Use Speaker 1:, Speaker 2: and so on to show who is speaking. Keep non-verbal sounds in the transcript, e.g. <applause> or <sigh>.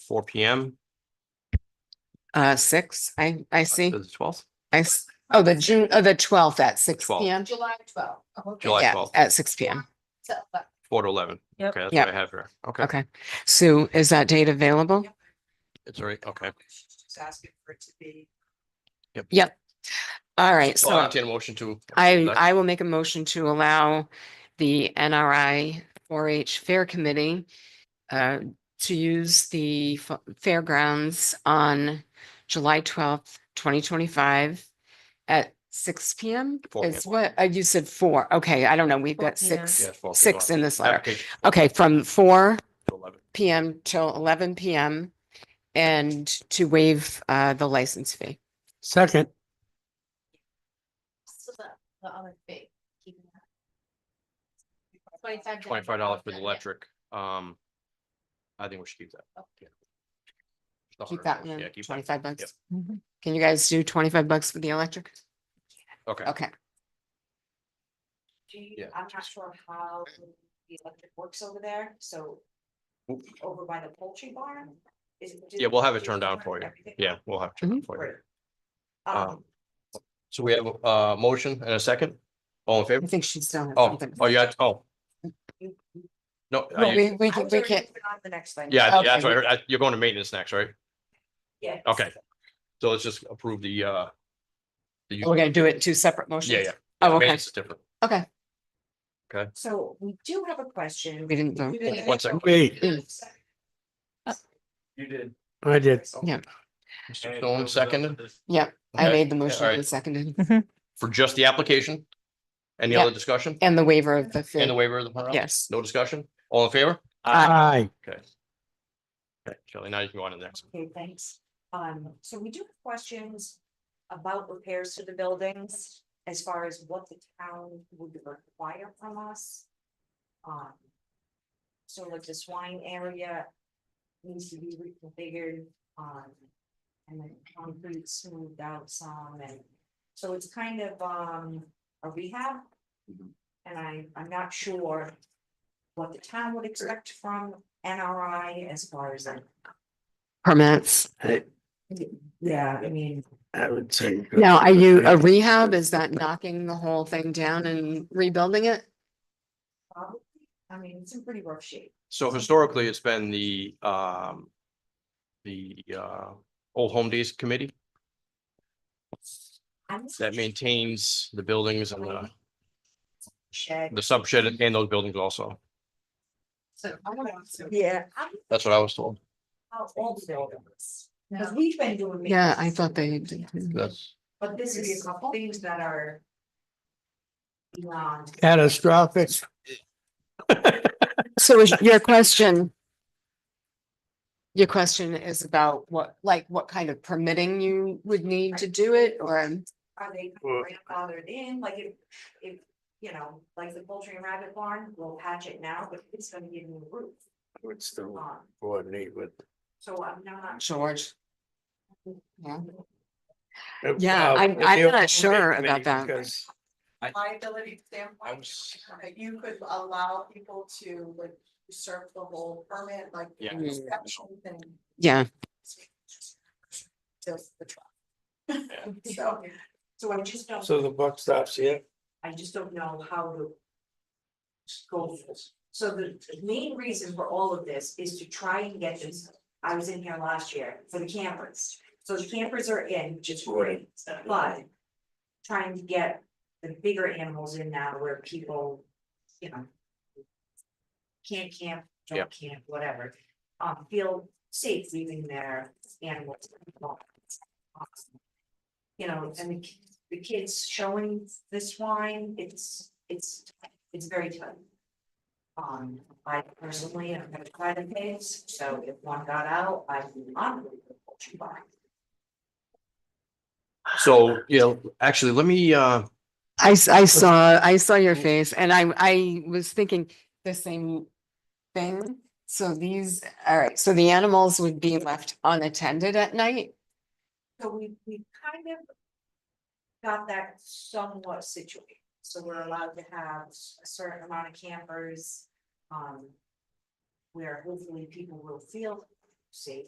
Speaker 1: four P M,
Speaker 2: Uh, six, I, I see,
Speaker 1: the twelfth,
Speaker 2: I, s- oh, the June, oh, the twelfth at six
Speaker 1: 12th.
Speaker 2: P M.
Speaker 3: July twelfth. Oh, Okay.
Speaker 1: July
Speaker 2: Yeah,
Speaker 1: 12th.
Speaker 2: at six P M.
Speaker 3: So, but
Speaker 1: four to eleven.
Speaker 3: Yep.
Speaker 1: Okay, that's
Speaker 2: Yep.
Speaker 1: what I have here. Okay,
Speaker 2: Okay. Sue, is that date available?
Speaker 3: Yep.
Speaker 1: it's all right. Okay.
Speaker 3: she's Just asking for it to be.
Speaker 2: All right,
Speaker 1: Well, I'll
Speaker 2: so
Speaker 1: entertain a motion to.
Speaker 2: I,
Speaker 1: Next.
Speaker 2: I will make a motion to allow the N R I four H Fair Committee uh, to use the fa- fairgrounds on July twelfth, twenty twenty-five at six P M.
Speaker 1: Four
Speaker 2: Is
Speaker 1: p.m.
Speaker 2: what, uh, you said four. Okay, I don't know. We've
Speaker 3: Four
Speaker 2: got
Speaker 3: p.m.
Speaker 1: Yeah,
Speaker 2: six,
Speaker 1: it's 4 p.m.
Speaker 2: six in this letter.
Speaker 1: Application
Speaker 2: Okay, from four
Speaker 1: to 11.
Speaker 2: PM till eleven PM and to waive uh the license fee.
Speaker 4: Second,
Speaker 3: So the, the other fee, keeping that. Twenty-five.
Speaker 1: Twenty-five dollars for the
Speaker 3: Yeah.
Speaker 1: electric. Um, I think we should keep that. Yeah. Just a
Speaker 2: Oh.
Speaker 1: hundred
Speaker 2: Keep that
Speaker 1: bucks.
Speaker 2: one,
Speaker 1: Oh, Yeah, keep that.
Speaker 2: twenty-five
Speaker 1: Yep.
Speaker 2: bucks. Can you guys do twenty-five bucks for the electric?
Speaker 1: Okay,
Speaker 2: Okay,
Speaker 3: Do you,
Speaker 1: Yeah.
Speaker 3: I'm not sure how the electric works over there, so
Speaker 2: Oh.
Speaker 1: Oop.
Speaker 3: over by the poultry barn. is it-
Speaker 1: yeah, we'll have it
Speaker 3: do
Speaker 1: turned down
Speaker 3: turn
Speaker 1: for you.
Speaker 3: everything on?
Speaker 1: Yeah, we'll have it turned
Speaker 2: Mm-hmm.
Speaker 1: down for
Speaker 3: Great.
Speaker 1: you.
Speaker 3: Um,
Speaker 1: So we have a uh, motion and a second. All in
Speaker 2: I <laughs>
Speaker 1: favor?
Speaker 2: think she's done.
Speaker 1: Oh, oh, yeah, oh. No, I-
Speaker 2: Mm-hmm. We, we
Speaker 3: I
Speaker 2: can,
Speaker 3: was
Speaker 2: we
Speaker 3: already
Speaker 2: can,
Speaker 3: moving on to the next thing.
Speaker 1: yeah, yeah, that's
Speaker 2: Okay.
Speaker 1: right. I- You're going to maintenance next, right?
Speaker 3: Yeah.
Speaker 1: Okay. So let's just approve the uh. the
Speaker 2: Oh, we're gonna do it in two separate motions.
Speaker 1: Yeah, yeah.
Speaker 2: Oh, okay,
Speaker 1: Maintenance is different.
Speaker 2: okay.
Speaker 3: So we do have a question.
Speaker 2: We didn't vote.
Speaker 3: We didn't-
Speaker 1: One second.
Speaker 4: wait,
Speaker 5: You did.
Speaker 4: I did.
Speaker 1: Mr. Stone seconded
Speaker 2: Yep, I
Speaker 1: Okay.
Speaker 2: made the motion
Speaker 1: all right.
Speaker 2: and seconded
Speaker 1: for just the application. Any other discussion?
Speaker 2: and the waiver of the
Speaker 1: And the
Speaker 2: fee.
Speaker 1: waiver of the. penalty?
Speaker 2: Yes.
Speaker 1: No discussion? All in favor?
Speaker 4: Aye.
Speaker 1: Okay. Okay, Shelley, now you can go on to the next.
Speaker 3: Okay, thanks. Um, so we do have questions about repairs to the buildings as far as what the town would require from us. Um. So like the swine area needs to be reconfigured, um, and then concrete smoothed out some and. So it's kind of, um, a rehab. And I, I'm not sure what the town would expect from NRI as far as like
Speaker 2: Permits.
Speaker 3: yeah, I mean,
Speaker 4: I would say.
Speaker 2: Now, are you, a rehab, is that knocking the whole thing down and rebuilding it?
Speaker 3: probably, I mean, it's in pretty rough shape.
Speaker 1: So historically, it's been the um. The uh, Old Home Days Committee
Speaker 3: I'm not
Speaker 1: that maintains the buildings and the
Speaker 3: <laughs> shed.
Speaker 1: the sub shed and those buildings also.
Speaker 3: Yeah. I'm not
Speaker 1: That's what I was told.
Speaker 3: How old the building is, because we've been doing.
Speaker 2: Yeah, I
Speaker 3: maintenance,
Speaker 2: thought they. did.
Speaker 1: That's,
Speaker 3: But this is some things that are. Beyond,
Speaker 4: Catastrophic.
Speaker 2: So is your question? Your question is about what, like, what kind of permitting you would need to do it or?
Speaker 3: are they
Speaker 4: Well-
Speaker 3: grandfathered in, like if, if, you know, like the poultry and rabbit barn, we'll patch it now, but it's gonna get a new roof
Speaker 4: Would still
Speaker 3: on.
Speaker 4: coordinate with.
Speaker 3: So I'm not.
Speaker 2: George. Yeah,
Speaker 4: Uh,
Speaker 2: Yeah, I'm- I'm not sure about that.
Speaker 4: Because
Speaker 6: liability
Speaker 1: I
Speaker 6: standpoint,
Speaker 1: was-
Speaker 6: that you could allow people to like usurp the whole permit, like.
Speaker 1: Yeah.
Speaker 2: Mm.
Speaker 6: exceptions and
Speaker 2: yeah,
Speaker 6: Just the truck.
Speaker 3: <laughs> So, so I just don't.
Speaker 4: so the buck stops here.
Speaker 3: I just don't know how to. Go with this. So the main reason for all of this is to try and get this, I was in here last year for the campers. So the campers are in, which is great, but. Trying to get the bigger animals in now where people, you know. Can't camp, don't camp, whatever, um, feel safe leaving their animals. alone. You know, and the ki- the kids showing the swine, it's, it's, it's very tough. Um, I personally am gonna try the case, so if one got out, I would not really go poultry barn.
Speaker 1: so, you know, actually, let me uh,
Speaker 2: I, s- I saw, I saw your face and I, I was thinking the same thing. So these, all right, so the animals would be left unattended at night?
Speaker 3: So we, we kind of. Got that somewhat situated, so we're allowed to have a certain amount of campers, um. Where hopefully people will feel safe